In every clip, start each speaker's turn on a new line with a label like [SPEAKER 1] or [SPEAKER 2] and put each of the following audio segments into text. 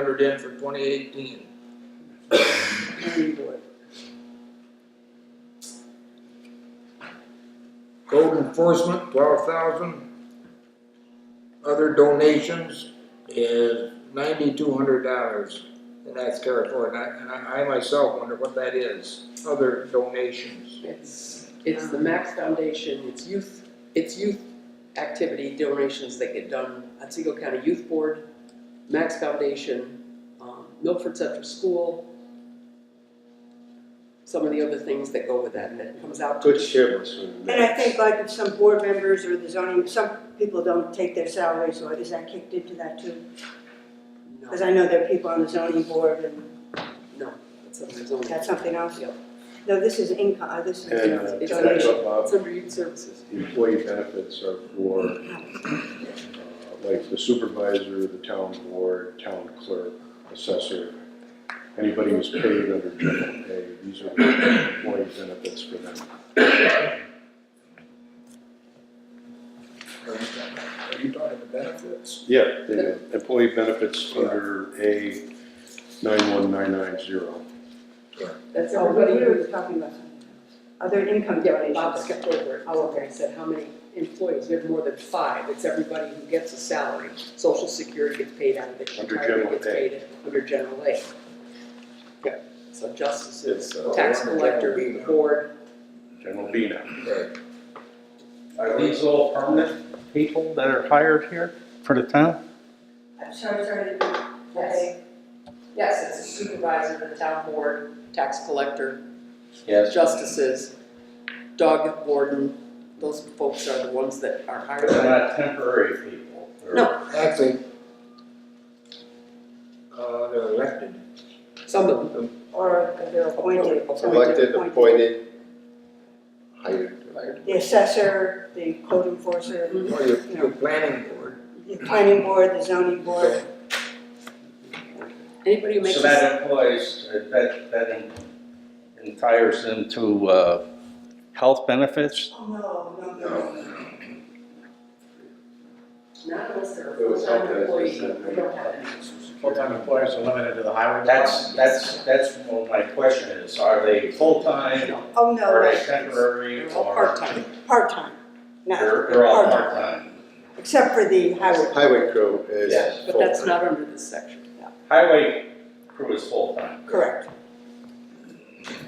[SPEAKER 1] ordered in for twenty eighteen.
[SPEAKER 2] planning board.
[SPEAKER 1] Code enforcement, twelve thousand. Other donations is ninety-two hundred dollars, and that's carried forward, and I, and I I myself wonder what that is, other donations.
[SPEAKER 2] It's, it's the Max Foundation, it's youth, it's youth activity donations that get done, Otsego County Youth Board, Max Foundation, um, Milford Central School. Some of the other things that go with that, and it comes out to.
[SPEAKER 3] Good shivers. when
[SPEAKER 4] And I think like if some board members or the zoning, some people don't take their salaries, or is that kicked into that too?
[SPEAKER 2] No,
[SPEAKER 4] Because I know there are people on the zoning board and
[SPEAKER 2] no, that's under zoning.
[SPEAKER 4] that's something else.
[SPEAKER 2] Yep.
[SPEAKER 4] No, this is income, this is.
[SPEAKER 3] And uh,
[SPEAKER 2] It's
[SPEAKER 3] to echo
[SPEAKER 2] It's
[SPEAKER 3] Bob's,
[SPEAKER 2] under youth services.
[SPEAKER 3] the employee benefits are for, uh, like the supervisor, the town board, town clerk, assessor, anybody who's paid under general pay, these are the employee benefits for them.
[SPEAKER 1] Are you talking about benefits?
[SPEAKER 3] Yeah, the employee benefits under A nine one nine nine zero.
[SPEAKER 2] That's
[SPEAKER 4] Oh, but
[SPEAKER 2] everybody
[SPEAKER 4] we
[SPEAKER 2] who
[SPEAKER 4] were talking about something else. Other income
[SPEAKER 2] Yeah, but Bob
[SPEAKER 4] donations.
[SPEAKER 2] skipped over it.
[SPEAKER 4] Oh, okay.
[SPEAKER 2] He said, how many employees? We have more than five. It's everybody who gets a salary. Social Security gets paid out of it.
[SPEAKER 3] Under
[SPEAKER 2] Retirement
[SPEAKER 3] general
[SPEAKER 2] gets
[SPEAKER 3] pay.
[SPEAKER 2] paid Under general aid. Yeah, so justices,
[SPEAKER 3] It's, uh,
[SPEAKER 2] tax
[SPEAKER 1] under
[SPEAKER 2] collector,
[SPEAKER 1] general aid.
[SPEAKER 2] board.
[SPEAKER 3] General B now.
[SPEAKER 1] Right.
[SPEAKER 5] Are these all permanent people that are hired here for the town?
[SPEAKER 4] I'm sorry, sorry.
[SPEAKER 2] Yes. Yes, it's a supervisor, the town board, tax collector,
[SPEAKER 5] Yes.
[SPEAKER 2] justices, dog warden. Those folks are the ones that are hired
[SPEAKER 5] They're
[SPEAKER 2] by.
[SPEAKER 5] not temporary people. or-
[SPEAKER 2] No.
[SPEAKER 1] Actually, uh, they're elected.
[SPEAKER 2] Some of them.
[SPEAKER 4] Or they're appointed.
[SPEAKER 6] Elected, appointed, hired, hired.
[SPEAKER 4] The assessor, the code enforcer,
[SPEAKER 1] Or your, your planning board.
[SPEAKER 4] the planning board, the zoning board.
[SPEAKER 2] Anybody who makes a
[SPEAKER 5] So that employs, uh, that, that en- entires them to, uh, health benefits?
[SPEAKER 4] Oh, no, no, no, no.
[SPEAKER 2] Not unless they're a
[SPEAKER 3] It was
[SPEAKER 2] full-time
[SPEAKER 3] helped as
[SPEAKER 2] employee,
[SPEAKER 3] they said.
[SPEAKER 2] we don't have any.
[SPEAKER 7] Full-time employees are limited to the highway.
[SPEAKER 5] That's, that's, that's what my question is, are they full-time,
[SPEAKER 2] No,
[SPEAKER 4] Oh,
[SPEAKER 5] are they
[SPEAKER 4] no,
[SPEAKER 5] temporary,
[SPEAKER 2] they're all
[SPEAKER 5] or
[SPEAKER 2] part-time.
[SPEAKER 4] part-time,
[SPEAKER 5] they're,
[SPEAKER 4] not,
[SPEAKER 5] they're all
[SPEAKER 4] Part-time.
[SPEAKER 5] part-time?
[SPEAKER 4] except for the highway.
[SPEAKER 6] Highway crew is
[SPEAKER 5] Yes,
[SPEAKER 2] But that's
[SPEAKER 6] full-time.
[SPEAKER 2] not under this section.
[SPEAKER 5] Highway crew is full-time.
[SPEAKER 4] Correct.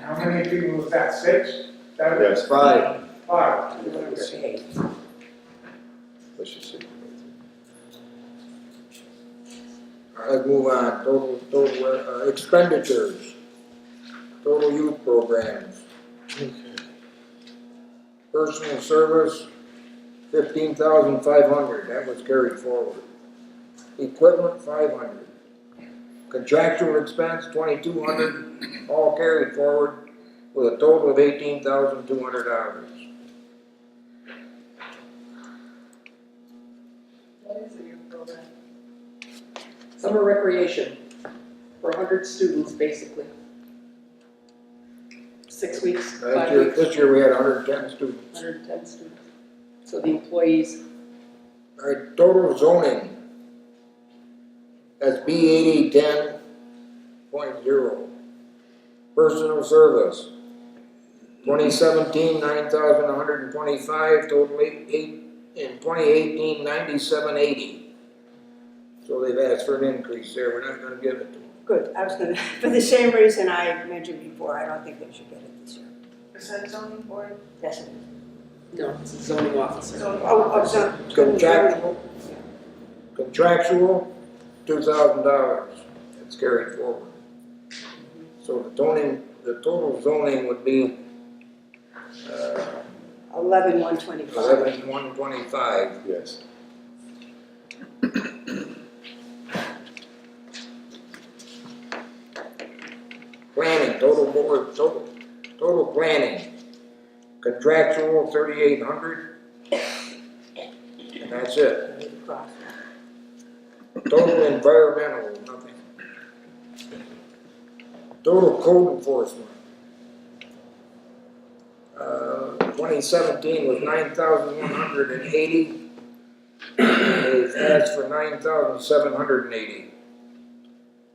[SPEAKER 7] How many people was that, six? That was
[SPEAKER 6] Yes,
[SPEAKER 1] Five,
[SPEAKER 7] five.
[SPEAKER 2] They're under A.
[SPEAKER 6] let's just see.
[SPEAKER 1] All right, let's move on, total, total uh, expenditures. Total youth programs. Personal service, fifteen thousand five hundred, that was carried forward. Equipment, five hundred. Contractual expense, twenty-two hundred, all carried forward with a total of eighteen thousand two hundred dollars.
[SPEAKER 2] Summer recreation for hundred students, basically. Six weeks,
[SPEAKER 1] Last
[SPEAKER 2] five
[SPEAKER 1] year,
[SPEAKER 2] weeks,
[SPEAKER 1] this year we had hundred and ten students.
[SPEAKER 2] hundred and ten students. So the employees,
[SPEAKER 1] Alright, total zoning. That's B eighty ten point zero. Personal service. Twenty seventeen, nine thousand one hundred and twenty-five, total eight, eight, in twenty eighteen, ninety-seven eighty. So they've asked for an increase there, we're not gonna give it to them.
[SPEAKER 4] Good, I was gonna, for the same reason I mentioned before, I don't think they should get it this year.
[SPEAKER 8] Is that zoning board?
[SPEAKER 4] Yes, it is.
[SPEAKER 2] no, it's a zoning officer.
[SPEAKER 8] Zoning
[SPEAKER 4] Oh, oh,
[SPEAKER 8] officer.
[SPEAKER 4] so,
[SPEAKER 1] Contractual. Contractual, two thousand dollars, that's carried forward. So the zoning, the total zoning would be, uh,
[SPEAKER 4] eleven, one twenty-five.
[SPEAKER 1] eleven one twenty-five.
[SPEAKER 3] Yes.
[SPEAKER 1] Planning, total board, total, total planning. Contractual, thirty-eight hundred. And that's it. Total environmental, nothing. Total code enforcement. Uh, twenty seventeen was nine thousand one hundred and eighty. They've asked for nine thousand seven hundred and eighty.